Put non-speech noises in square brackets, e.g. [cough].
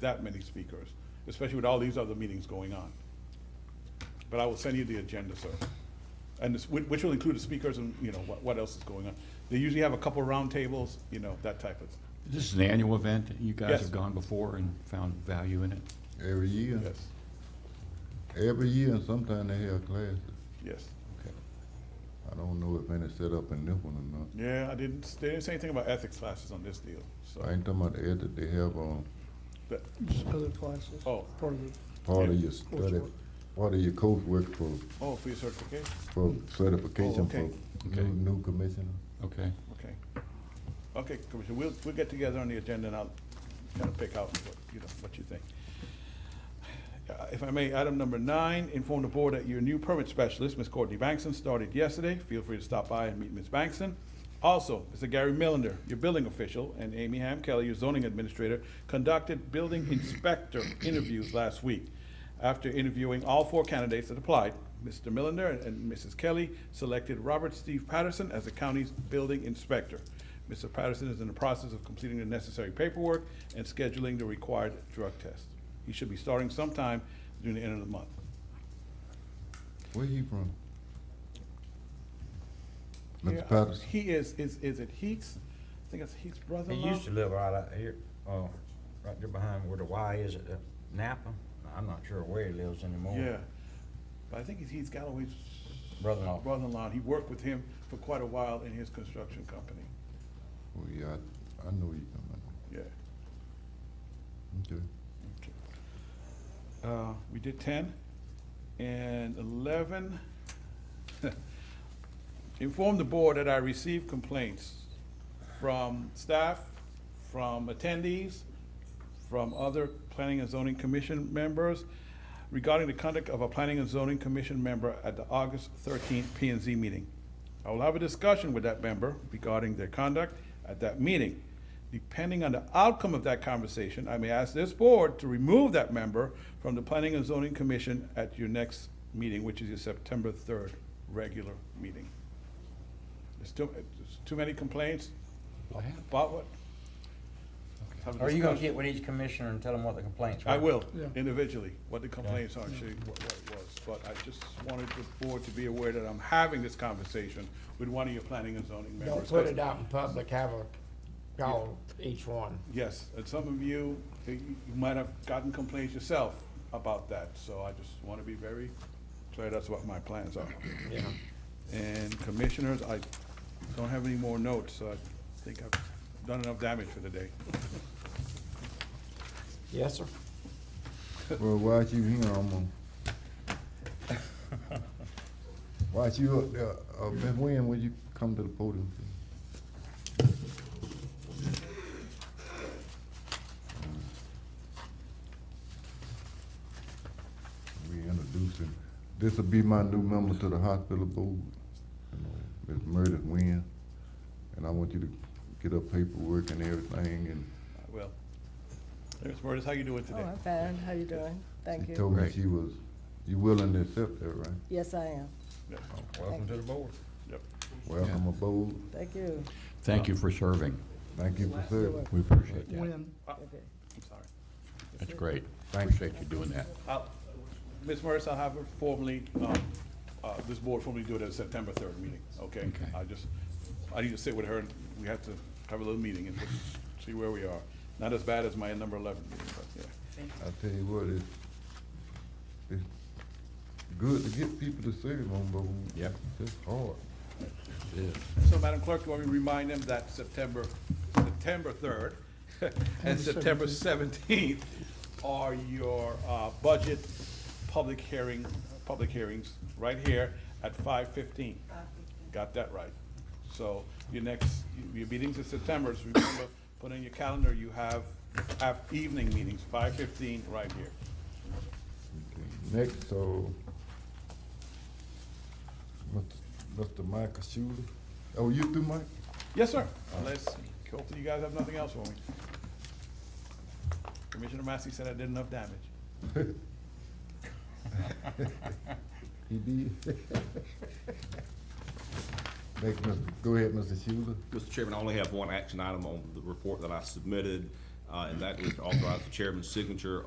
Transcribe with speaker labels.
Speaker 1: that many speakers, especially with all these other meetings going on. But I will send you the agenda, sir. And this, whi- which will include the speakers and, you know, what, what else is going on. They usually have a couple round tables, you know, that type of,
Speaker 2: This is an annual event. You guys
Speaker 1: Yes.
Speaker 2: have gone before and found value in it.
Speaker 3: Every year,
Speaker 1: yes,
Speaker 3: every year, and sometimes they have classes.
Speaker 1: yes.
Speaker 3: I don't know if any set up in this one or not.
Speaker 1: Yeah, I didn't, they didn't say anything about ethics classes on this deal,
Speaker 3: I
Speaker 1: so.
Speaker 3: ain't talking about the ed that they have on
Speaker 1: that-
Speaker 4: Just other classes.
Speaker 1: Oh.
Speaker 4: Part of it.
Speaker 3: part of
Speaker 1: Yeah.
Speaker 3: your study, part of your coursework for,
Speaker 1: Oh, for your certification,
Speaker 3: for certification
Speaker 1: Oh, okay.
Speaker 3: for
Speaker 2: Okay.
Speaker 3: new, new commissioner.
Speaker 2: Okay.
Speaker 1: okay. Okay, Commissioner, we'll, we'll get together on the agenda and I'll kind of pick out what, you know, what you think. Uh, If I may, item number nine, inform the board that your new permit specialist, Ms. Courtney Bankson, started yesterday. Feel free to stop by and meet Ms. Bankson. Also, Mr. Gary Millender, your building official, and Amy Ham Kelly, your zoning administrator, conducted building inspector interviews last week. After interviewing all four candidates that applied, Mr. Millender and Mrs. Kelly selected Robert Steve Patterson as the county's building inspector. Mr. Patterson is in the process of completing the necessary paperwork and scheduling the required drug test. He should be starting sometime during the end of the month.
Speaker 3: Where he from?
Speaker 1: Yeah,
Speaker 3: Mr. Patterson?
Speaker 1: He is, is, is it Heath's? I think it's Heath's
Speaker 5: He
Speaker 1: brother-in-law?
Speaker 5: used to live right out here, uh, right there behind where the Y is at uh, Napa. I'm not sure where he lives anymore.
Speaker 1: Yeah. But I think it's Heath Galloway's
Speaker 5: Brother-in-law.
Speaker 1: brother-in-law. He worked with him for quite a while in his construction company.
Speaker 3: Oh, yeah, I, I know you coming.
Speaker 1: Yeah.
Speaker 3: Okay.
Speaker 1: Uh, we did ten and eleven. [laughs] Inform the board that I received complaints from staff, from attendees, from other planning and zoning commission members regarding the conduct of a planning and zoning commission member at the August thirteenth P and Z meeting. I will have a discussion with that member regarding their conduct at that meeting. Depending on the outcome of that conversation, I may ask this board to remove that member from the Planning and Zoning Commission at your next meeting, which is your September third regular meeting. There's too, there's too many complaints about what? Have a
Speaker 5: Are you gonna
Speaker 1: discussion.
Speaker 5: get with each commissioner and tell them what the complaints were?
Speaker 1: I will,
Speaker 4: Yeah.
Speaker 1: individually, what the complaints are, actually, what what it was, but I just wanted the board to be aware that I'm having this conversation with one of your planning and zoning members.
Speaker 6: Don't put it out in public, have a call each one.
Speaker 1: Yes, and some of you, you you might have gotten complaints yourself about that, so I just want to be very clear, that's what my plans are.
Speaker 6: Yeah.
Speaker 1: And commissioners, I don't have any more notes, so I think I've done enough damage for the day.
Speaker 6: Yes, sir?
Speaker 3: Well, why you here, I'm gonna. Why you up there, uh, Miss Wynn, would you come to the podium? please? We introducing, this'll be my new member to the hospital board, you know, Ms. Meredith Wynn. And I want you to get her paperwork and everything, and
Speaker 1: Well, there's, Meredith, how you doing
Speaker 7: Oh,
Speaker 1: today?
Speaker 7: I'm fine. How you doing? Thank
Speaker 3: she told
Speaker 7: you.
Speaker 3: me
Speaker 2: Right.
Speaker 3: she was, you willing to accept that, right?
Speaker 7: Yes, I am.
Speaker 1: Yes, oh,
Speaker 5: Welcome to the board.
Speaker 1: Yep.
Speaker 3: Welcome aboard.
Speaker 7: Thank you.
Speaker 2: Thank you for serving.
Speaker 3: Thank you for serving.
Speaker 2: We appreciate that.
Speaker 4: When,
Speaker 7: Okay.
Speaker 1: I'm sorry.
Speaker 2: That's great. Appreciate you doing that.
Speaker 1: I'll- Ms. Morris, I'll have her formally, um, uh, this board formally do it at September third meeting, okay?
Speaker 2: Okay.
Speaker 1: I just, I need to sit with her, and we have to have a little meeting and see where we are. Not as bad as my number eleven meeting, but, yeah.
Speaker 3: I tell you what, it's, it's good to get people to serve on, but we-
Speaker 2: Yep.
Speaker 3: it's hard.
Speaker 1: So, Madam Clerk, you want me to remind them that September, September third [laughs] and
Speaker 4: And
Speaker 1: September seventeenth are your, uh, budget public hearing, public hearings, right here at five fifteen. Got that right. So, your next, your meetings in September, so remember, put in your calendar, you have, have evening meetings, five fifteen, right here.
Speaker 3: Next, so, Mr. Mr. Michael Schuler, oh, you through, Mike?
Speaker 1: Yes, sir, unless, hopefully you guys have nothing else for me. Commissioner Massey said I did enough damage.
Speaker 3: He did. [laughs] Next, Mr. go ahead, Mr. Schuler.
Speaker 8: Mr. Chairman, I only have one action item on the report that I submitted. uh, and that would authorize the chairman's signature